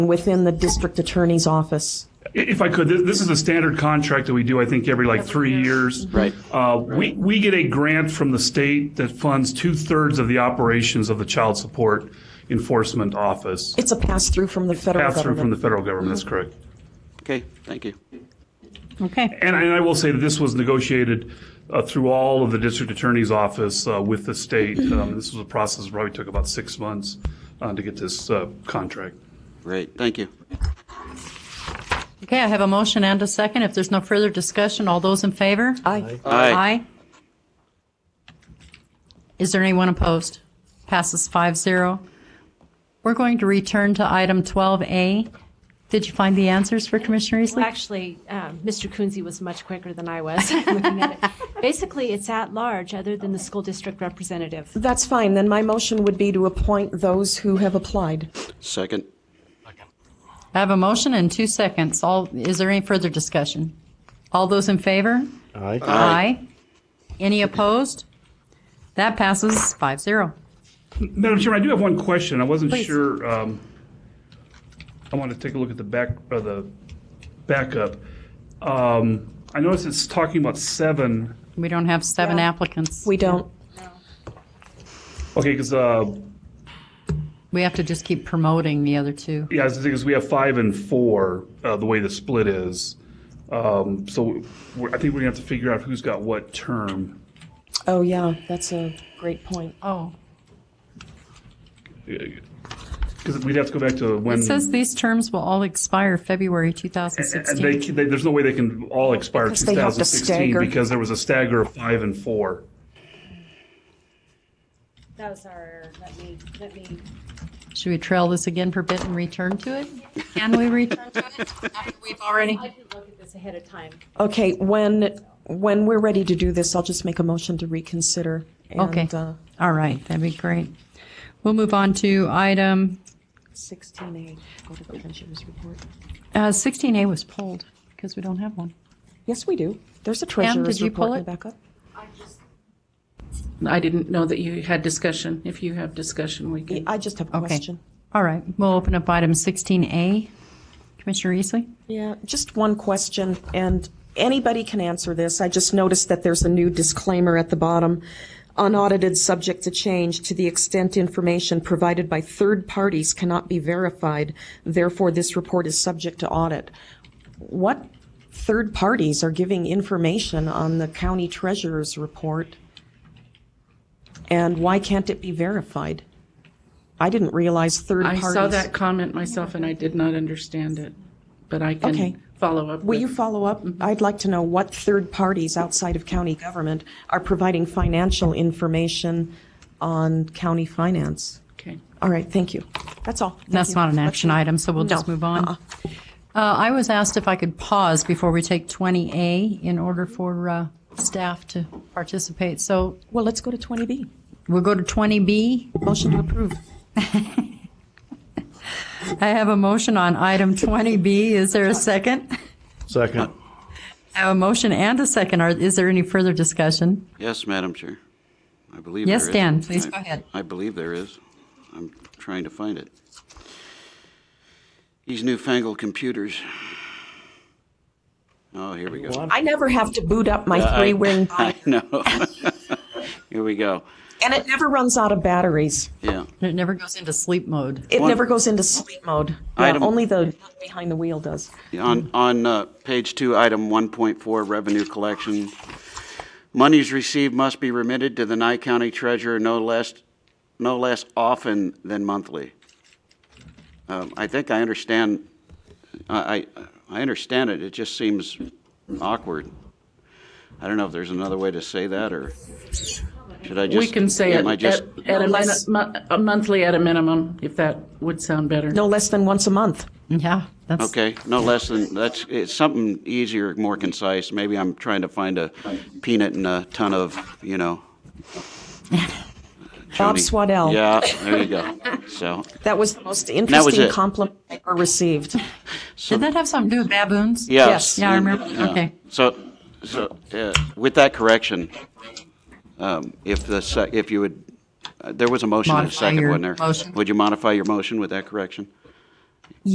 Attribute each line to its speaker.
Speaker 1: within the district attorney's office.
Speaker 2: If I could, this this is a standard contract that we do, I think, every like three years.
Speaker 3: Mm-hmm. Right.
Speaker 2: Uh, We, we get a grant from the state that funds two-thirds of the operations of the Child Support Enforcement Office.
Speaker 1: It's a pass-through from the federal
Speaker 2: Pass-through from
Speaker 1: government.
Speaker 2: the
Speaker 1: Mm-hmm.
Speaker 2: federal government, that's correct.
Speaker 3: Okay, thank you.
Speaker 4: Okay,
Speaker 2: And I and I will say that this was negotiated uh, through all of the district attorney's office uh, with the state.
Speaker 1: Mm-hmm.
Speaker 2: Um, This was a process that probably took about six months uh, to get this uh, contract.
Speaker 3: Great, thank you.
Speaker 4: okay, I have a motion and a second. If there's no further discussion, all those in favor?
Speaker 1: Aye.
Speaker 3: Aye.
Speaker 4: Is there anyone opposed? Passes 5-0. We're going to return to item 12A. Did you find the answers for Commissioner
Speaker 5: Well,
Speaker 4: Easley?
Speaker 5: actually, um, Mr. Coonsey was much quicker than I was looking at it. Basically, it's at large, other than the school district representative.
Speaker 1: That's fine, then my motion would be to appoint those who have applied.
Speaker 3: Second.
Speaker 4: I have a motion and two seconds. All, is there any further discussion? All those in favor? Aye. Any opposed? That passes 5-0.
Speaker 2: Madam Chairman, I do have one question. I wasn't
Speaker 4: Please.
Speaker 2: sure, um, I want to take a look at the back, or the backup. Um, I noticed it's talking about seven,
Speaker 4: We don't have seven applicants.
Speaker 1: We don't,
Speaker 2: okay, uh, because, yeah,
Speaker 4: We have to just keep promoting the other two.
Speaker 2: the thing is, we have five and four, uh, the way the split is. Um, So we're- I think we're going to have to figure out who's got what term.
Speaker 1: oh yeah, that's a great point.
Speaker 4: Oh.
Speaker 2: Because we'd have to go back to when.
Speaker 4: It says these terms will all expire February
Speaker 2: And they,
Speaker 4: 2016.
Speaker 2: they- there's no way they can all expire
Speaker 1: Because they have to
Speaker 2: 2016
Speaker 1: stagger.
Speaker 2: because there was a stagger of five and four.
Speaker 6: That was our error. Let me, let me.
Speaker 4: Should we trail this again for bit and return to it? Can we return to it after we've already?
Speaker 6: I didn't look at this ahead of time.
Speaker 1: Okay, when, when we're ready to do this, I'll just make a motion to reconsider. and,
Speaker 4: Okay.
Speaker 1: uh,
Speaker 4: All right, that'd be great. We'll move on to item,
Speaker 1: 16A, go to the treasurer's report.
Speaker 4: uh, 16A was pulled because we don't have one.
Speaker 1: Yes, we do. There's a treasurer's
Speaker 4: you
Speaker 1: report
Speaker 4: pull
Speaker 1: in the
Speaker 4: it?
Speaker 1: backup.
Speaker 7: I didn't know that you had discussion. If you have discussion, we can.
Speaker 1: I just have a
Speaker 4: Okay.
Speaker 1: question.
Speaker 4: All right, we'll open up item 16A. Commissioner Easley?
Speaker 1: Yeah, just one question, and anybody can answer this. I just noticed that there's a new disclaimer at the bottom. Unaudited, subject to change to the extent information provided by third parties cannot be verified. Therefore, this report is subject to audit. What third parties are giving information on the county treasurer's report? And why can't it be verified? I didn't realize third
Speaker 7: I
Speaker 1: parties.
Speaker 7: saw that comment myself and I did not understand it, but I
Speaker 1: Okay.
Speaker 7: can follow up.
Speaker 1: Will
Speaker 7: with-
Speaker 1: you follow up? I'd like to know what third parties outside of county government are providing financial information on county finance.
Speaker 7: Okay.
Speaker 1: All right, thank you. That's all. Thank
Speaker 4: That's
Speaker 1: you.
Speaker 4: not an
Speaker 1: Let's
Speaker 4: action
Speaker 1: move-
Speaker 4: item, so we'll just
Speaker 1: No.
Speaker 4: move on.
Speaker 1: Uh-uh.
Speaker 4: Uh, I was asked if I could pause before we take 20A in order for uh, staff to participate. So
Speaker 1: Well, let's go to 20B.
Speaker 4: we'll go to 20B.
Speaker 1: Motion to approve.
Speaker 4: I have a motion on item 20B. Is there a second?
Speaker 8: Second.
Speaker 4: I have a motion and a second. Are- Is there any further discussion?
Speaker 3: Yes, Madam Chair. I believe
Speaker 4: Yes,
Speaker 3: there is.
Speaker 4: Dan, please
Speaker 3: I-
Speaker 4: go ahead.
Speaker 3: I believe there is. I'm trying to find it. These newfangled computers. Oh, here we go.
Speaker 1: I never have to boot up my three-wing,
Speaker 3: I know. Here we go.
Speaker 1: and it never runs out of batteries.
Speaker 3: Yeah.
Speaker 4: It never goes into sleep mode.
Speaker 1: It
Speaker 3: One-
Speaker 1: never goes into sleep mode. Yeah,
Speaker 3: Item-
Speaker 1: Only the nut behind the wheel does.
Speaker 3: On, on uh, page two, item 1.4, revenue collection. Monies received must be remitted to the Nye County Treasurer no less, no less often than monthly. Um, I think I understand, I, I I understand it, it just seems awkward. I don't know if there's another way to say that, or should I just?
Speaker 7: We can say it
Speaker 3: am I just-
Speaker 7: at, at a
Speaker 1: Unless-
Speaker 7: minu- mo- a monthly at a minimum, if that would sound better.
Speaker 1: No less than once a month.
Speaker 4: Yeah, that's,
Speaker 3: Okay, no less than, that's, it's something easier, more concise. Maybe I'm trying to find a peanut and a ton of, you know.
Speaker 1: Bob
Speaker 3: Joni.
Speaker 1: Swaddell.
Speaker 3: Yeah, there you go. So,
Speaker 1: That was the most
Speaker 3: was
Speaker 1: interesting
Speaker 3: it.
Speaker 1: compliment I ever received.
Speaker 4: did that have something to do with baboons?
Speaker 3: yes.
Speaker 4: Yeah, I remember. Okay.
Speaker 3: So, so, uh, with that correction, um, if the, sec- if you would, uh, there was a motion and a
Speaker 4: Modify
Speaker 3: second,
Speaker 4: your
Speaker 3: wasn't there?
Speaker 4: motion.
Speaker 3: Would you modify your motion with that correction?